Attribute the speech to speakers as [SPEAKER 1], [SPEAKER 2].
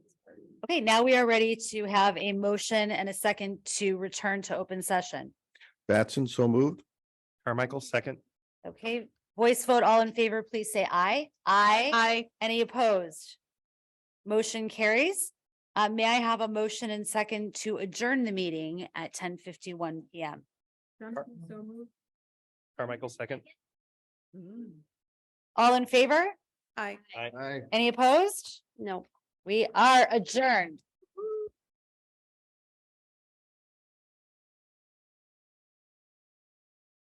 [SPEAKER 1] Okay, now we are ready to have a motion and a second to return to open session.
[SPEAKER 2] Batson, so moved.
[SPEAKER 3] Carmichael, second.
[SPEAKER 1] Okay, voice vote, all in favor, please say aye. Aye. Any opposed? Motion carries. Uh, may I have a motion and second to adjourn the meeting at ten fifty-one PM?
[SPEAKER 3] Johnson, Carmichael, second.
[SPEAKER 1] All in favor?
[SPEAKER 4] Aye.
[SPEAKER 3] Aye.
[SPEAKER 1] Any opposed?
[SPEAKER 4] No.
[SPEAKER 1] We are adjourned.